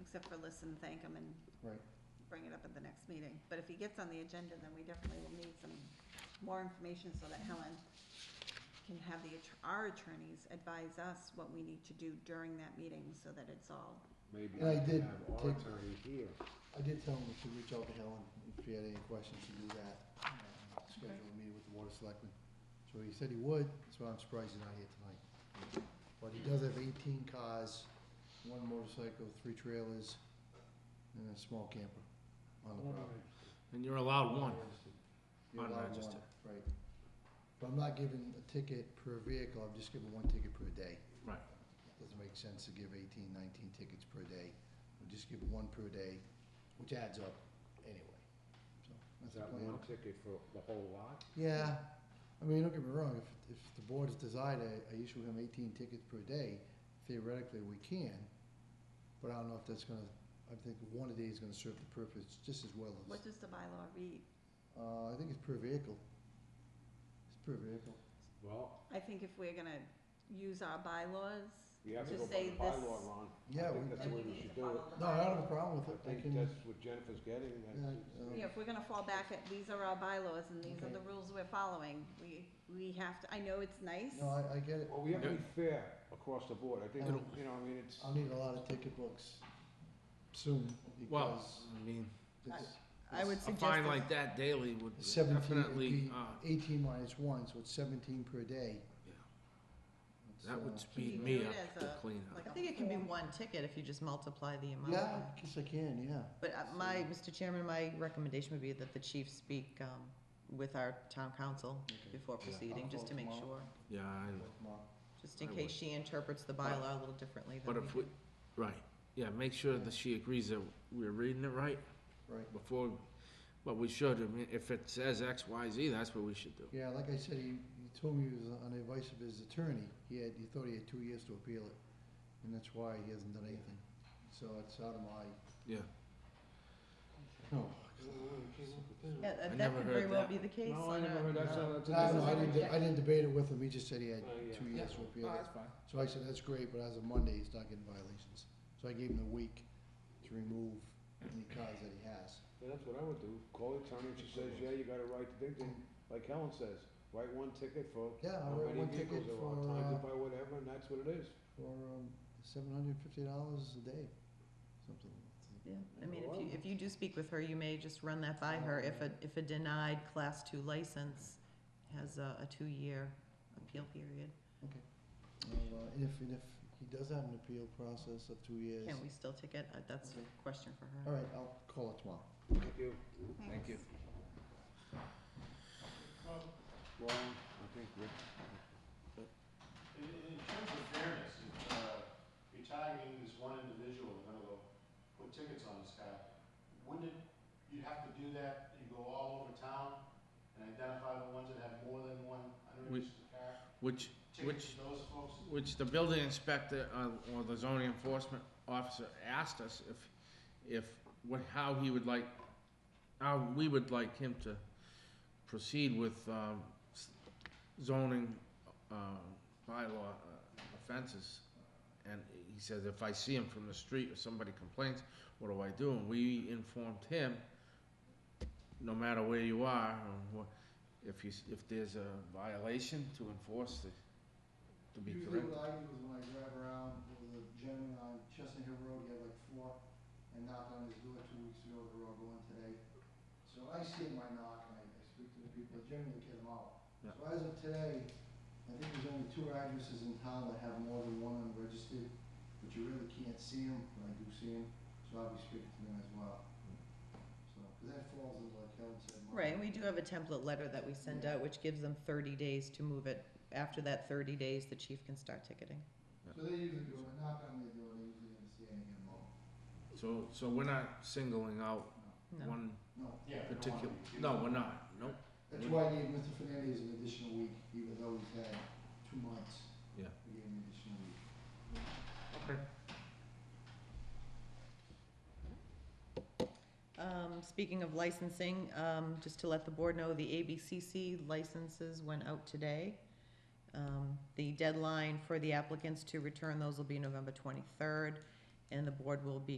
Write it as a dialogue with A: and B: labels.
A: except for listen, thank him, and
B: Right.
A: bring it up at the next meeting. But if he gets on the agenda, then we definitely will need some more information so that Helen can have the, att- our attorneys advise us what we need to do during that meeting so that it's all,
C: Maybe
B: And I
C: we
B: did
C: could have our
B: take-
C: attorney here.
B: I did tell him to reach out to Helen if he had any questions to do that, um, schedule a meeting with the Board of Selectmen. So he said he would, so I'm surprised he's not here tonight. But he does have eighteen cars, one motorcycle, three trailers, and a small camper on the property.
D: And you're allowed one.
B: You're allowed
D: Unregistered.
B: one, Right. But I'm not giving a ticket per vehicle, I'm just giving one ticket per day.
D: Right.
B: Doesn't make sense to give 18, 19 tickets per day. We'll just give one per day, which adds up anyway. So that's
C: Is
B: the
C: that
B: plan.
C: one ticket for the whole lot?
B: Yeah, I mean, don't get me wrong, if, if the board has desired, I, I issue him eighteen tickets per day, theoretically, we can. But I don't know if that's gonna, I think one a day is gonna serve the purpose just as well as,
A: what does the bylaw read?
B: uh, I think it's per vehicle. It's per vehicle.
C: Well,
A: I think if we're gonna use our bylaws,
C: you have to
A: Just
C: go by
A: say
C: the bylaw,
A: this-
C: Ron.
B: Yeah,
C: I think
B: we,
C: that's the
A: then
C: way
A: we
C: we
A: need to
C: should do it.
A: follow the
B: no, I don't
A: bylaw.
B: have a problem with it,
C: I
B: I
C: think
B: can,
C: that's what Jennifer's getting, that's.
B: Yeah,
A: Yeah, if we're gonna fall back at, these are our bylaws and these are
B: Okay.
A: the rules we're following, we, we have to, I know it's nice.
B: no, I, I get it,
C: Well, we have to be fair across the board, I think,
B: It'll-
C: you know, I mean, it's,
B: I'll need a lot of ticket books soon,
D: Well,
B: because
D: I mean,
B: it's
A: I would
D: a
A: suggest
D: fine
A: that,
D: like that daily would
B: seventeen, it'd
D: definitely,
B: be
D: uh,
B: eighteen minus one, so it's seventeen per day.
D: Yeah.
B: It's,
D: that
B: uh,
D: would
A: you
D: speed
A: do
D: me
A: it
D: up
A: as
D: to
A: a-
D: clean up.
A: like
E: I
A: a
E: think it can be
A: form?
E: one ticket if you just multiply the amount.
B: Yeah, I guess I can, yeah.
E: But uh, my, Mr. Chairman, my recommendation would be that the chief speak um, with our town council
B: Okay.
E: before
C: Yeah.
E: proceeding,
B: I'll
E: just to
B: call
E: make
B: tomorrow.
E: sure.
D: Yeah, I know.
E: Just in
D: I
E: case
D: would.
E: she interprets the bylaw a little differently
D: But
E: than
D: if
E: we
D: we, right, yeah, make sure that she agrees that we're reading it right
B: Right,
D: before, but we should, I mean, if it says X, Y, Z, that's what we should do.
B: yeah, like I said, he, he told me he was on the advice of his attorney, he had, he thought he had two years to appeal it, and that's why he hasn't done anything. So it's out of my,
D: Yeah,
B: no,
E: Yeah,
C: no,
E: that-
D: I
E: That
D: never
E: could very
D: heard
E: well
D: that.
E: be the case.
C: I
E: on
C: never
E: a-
C: heard that,
A: uh,
C: so that's.
B: no, I didn't, de- I didn't debate it with him, he just said he had
C: Oh, yeah.
B: two years to appeal it.
D: fine.
B: So I said, that's great, but as of Monday, he's not getting violations. So I gave him a week to remove any cars that he has.
C: Yeah, That's what I would do, call the attorney, she says, yeah, you got a right to dig, then, like Helen says, write one ticket for
B: Yeah, I
C: how
B: wrote
C: many
B: one ticket
C: vehicles are
B: for,
C: on, times
B: uh,
C: it by whatever, and that's what it is.
B: for um, seven hundred fifty dollars a day, something. like that.
E: Yeah, I mean, if you, if you do speak with her, you may just run that by her. If a, if a denied class two license has a, a two-year appeal period,
B: And, uh, and if, and if he does have an appeal process of two years,
E: can we still take it? Uh, That's a question for her.
B: all right, I'll call it tomorrow.
C: Thank you.
D: Thank you.
C: Well, I think Rick
F: In, in terms of fairness, if, uh, you're targeting this one individual, you're gonna go put tickets on this guy, wouldn't it, you'd have to do that, you go all over town and identify the ones that have more than one unregistered car?
D: Which,
F: Tickets
D: which-
F: to those folks?
D: which the building inspector uh, or the zoning enforcement officer asked us if, if, what, how he would like, how we would like him to proceed with um, s- zoning uh, bylaw uh, offenses. uh, And he says, if I see him from the street or somebody complains, what do I do? And we informed him, no matter where you are, or what, if you, s- if there's a violation to enforce the, to be
B: Usually
D: correct.
B: what I do is when I drive around with a gentleman on Chestnut Hill Road, he had like four, and knocked on his door two weeks ago, they're all going today. So I see him, I knock, and I, I speak to the people, I generally get them out.
D: Yeah.
B: So as of today, I think there's only two addresses in town that have more than one unregistered, but you really can't see them, but I do see them, so I'll be speaking to them as well. So, cause that falls into like Helen said. my-
E: Right, and we do have a template letter that we send out, which gives them thirty days to move it. After that thirty days, the chief can start ticketing.
B: So they usually do, I knock on their door, they usually don't see any of them all.
D: So, so we're not singling out
E: No,
D: one
B: No,
F: Yeah, you don't wanna
D: particular,
F: be-
D: no, we're not, nope.
B: That's why I gave Mr. Fernandez an additional week, even though he's had two months.
D: Yeah.
B: We gave him an additional week.
D: Okay.
E: Um, speaking of licensing, um, just to let the board know, the ABCC licenses went out today. Um, the deadline for the applicants to return those will be November twenty-third, and the board will be